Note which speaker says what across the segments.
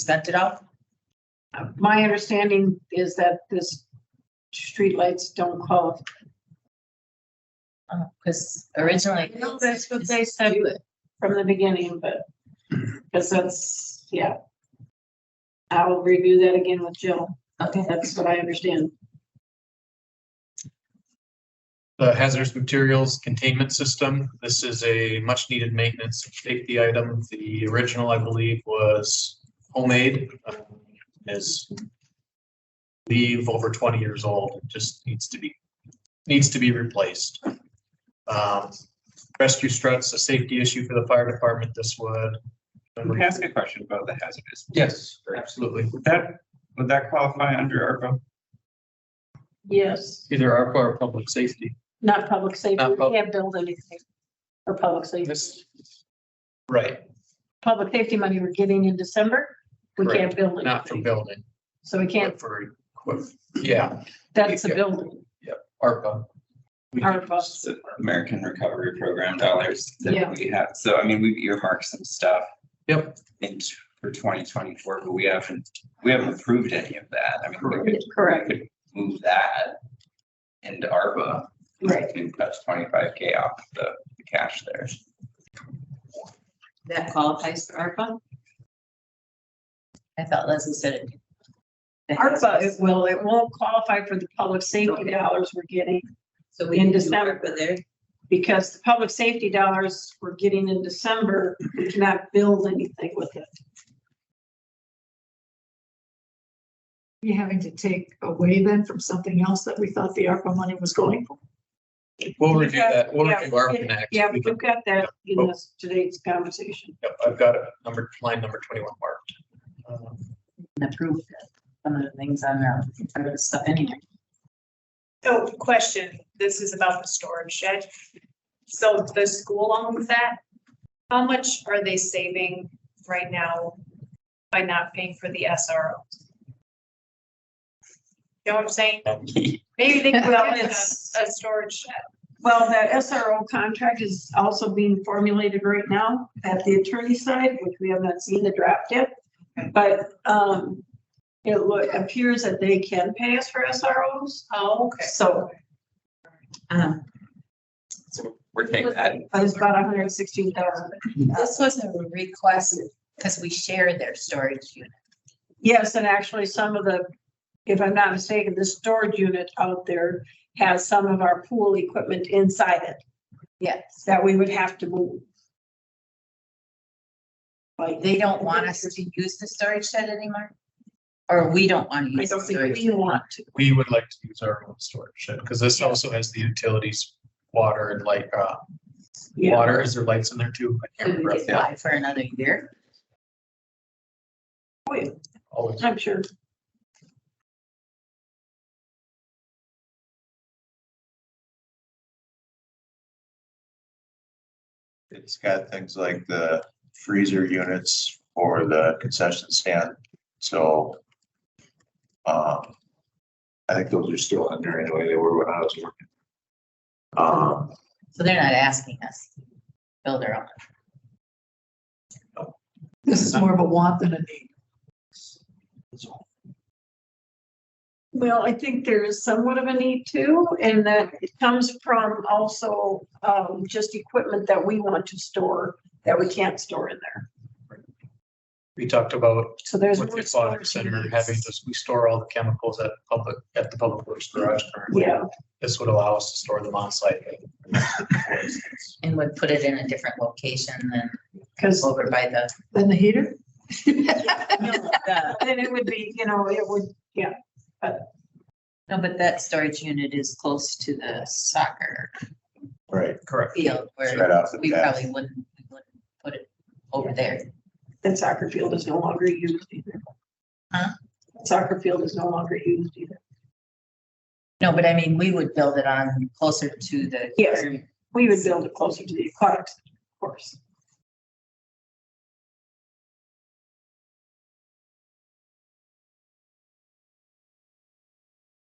Speaker 1: sent it out?
Speaker 2: My understanding is that this streetlights don't qualify.
Speaker 1: Because uh, originally.
Speaker 2: No, that's what they said from the beginning, but, because that's, yeah. I will review that again with Jill.
Speaker 1: Okay.
Speaker 2: That's what I understand.
Speaker 3: the hazardous materials containment system. This is a much needed maintenance safety item. The original, I believe, was homemade. um, Is leave over twenty years old, It just needs to be, needs to be replaced. Um, Rescue struts, a safety issue for the fire department, this would.
Speaker 4: Can I ask a question about the hazardous?
Speaker 3: Yes, absolutely.
Speaker 4: Would that, would that qualify under ARPA?
Speaker 2: Yes,
Speaker 3: Either ARPA or public safety.
Speaker 2: not public safety.
Speaker 3: Not
Speaker 2: We
Speaker 3: pub-
Speaker 2: can't build anything for public safety.
Speaker 3: This, right,
Speaker 2: Public safety money we're getting in December, we can't build
Speaker 3: not for
Speaker 2: anything.
Speaker 3: building,
Speaker 2: So we
Speaker 3: but
Speaker 2: can't,
Speaker 3: for, equip- yeah.
Speaker 2: that's the building,
Speaker 3: ARPA. We
Speaker 2: our bus.
Speaker 4: So American Recovery Program dollars
Speaker 2: Yeah.
Speaker 4: that we have. So I mean, we've earmarked some stuff.
Speaker 3: Yep.
Speaker 4: In for twenty twenty-four, but we haven't, we haven't approved any of that. I mean, we could
Speaker 2: Correct,
Speaker 4: move that into ARPA.
Speaker 2: right.
Speaker 4: And that's twenty-five K off the the cash there.
Speaker 1: That qualifies for ARPA? I thought Leslie said it. The
Speaker 2: ARPA, it
Speaker 1: hazardous.
Speaker 2: will, it won't qualify for the public safety dollars we're getting
Speaker 1: So we
Speaker 2: in
Speaker 1: can do
Speaker 2: December.
Speaker 1: ARPA there.
Speaker 2: because the public safety dollars we're getting in December, we cannot build anything with it.
Speaker 5: you having to take away then from something else that we thought the ARPA money was going for?
Speaker 3: We'll review that, we'll
Speaker 2: Yeah,
Speaker 3: review ARPA
Speaker 2: yeah,
Speaker 3: next.
Speaker 2: Yeah, we've got that in this, today's conversation.
Speaker 3: Yep, I've got it, number, line number twenty-one marked. Um,
Speaker 1: And approve that. some of the things on there, some of the stuff anyway.
Speaker 6: Oh, question. This is about the storage shed. So the school owns that. How much are they saving right now by not paying for the SRO? You know what I'm saying?
Speaker 3: Um,
Speaker 6: Maybe they could
Speaker 2: Well,
Speaker 6: own a,
Speaker 2: it's-
Speaker 6: a storage shed.
Speaker 2: Well, that SRO contract is also being formulated right now at the attorney side, which we have not seen the draft yet. But, um, it lo- appears that they can pay us for SROs,
Speaker 6: Oh, okay.
Speaker 2: so
Speaker 1: Um,
Speaker 4: So we're taking that.
Speaker 2: But It's about hundred and sixteen thousand.
Speaker 1: This was a request because we share their storage unit.
Speaker 2: Yes, and actually some of the, if I'm not mistaken, the storage unit out there has some of our pool equipment inside it
Speaker 1: Yes.
Speaker 2: that we would have to move. Like,
Speaker 1: They don't want us to use the storage shed anymore? Or we don't want to
Speaker 2: I
Speaker 1: use the
Speaker 2: don't think
Speaker 1: storage?
Speaker 2: we want to.
Speaker 3: We would like to use our own storage shed, because this also has the utilities, water and light, uh,
Speaker 2: Yeah,
Speaker 3: water, is there lights in there too? I can't
Speaker 1: Could
Speaker 3: remember.
Speaker 1: we just buy for another year?
Speaker 3: Always.
Speaker 2: I'm sure.
Speaker 7: It's got things like the freezer units for the concession stand, so. Um, I think those are still under anyway, they were when I was working. Um,
Speaker 1: So they're not asking us to build our own.
Speaker 5: This is more of a want than a need.
Speaker 2: Well, I think there is somewhat of a need to, and that it comes from also, um, just equipment that we want to store that we can't store in there.
Speaker 3: We talked about
Speaker 2: So there's.
Speaker 3: with the
Speaker 2: more
Speaker 3: aquatic
Speaker 2: storage
Speaker 3: center,
Speaker 2: units.
Speaker 3: having this, we store all the chemicals at public, at the public works garage currently.
Speaker 2: Yeah,
Speaker 3: This would allow us to store them on site.
Speaker 1: And would put it in a different location than
Speaker 2: because
Speaker 1: over by the.
Speaker 5: Then the heater?
Speaker 1: No,
Speaker 2: then it would be, you know, it would, yeah,
Speaker 1: but that storage unit is close to the soccer
Speaker 7: right,
Speaker 3: Correct.
Speaker 1: field
Speaker 7: it's right
Speaker 1: where
Speaker 7: off the
Speaker 1: we
Speaker 7: bat.
Speaker 1: probably wouldn't, we wouldn't put it over there.
Speaker 2: that soccer field is no longer used either.
Speaker 1: Huh?
Speaker 2: Soccer field is no longer used either.
Speaker 1: No, but I mean, we would build it on closer to the.
Speaker 2: Yes. We would build it closer to the aquatic center, of course.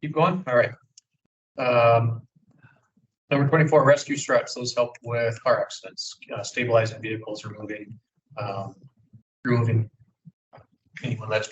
Speaker 3: Keep going, all right. Um, Number twenty-four, rescue struts, those help with car accidents, uh, stabilizing vehicles, removing, um, removing anyone that's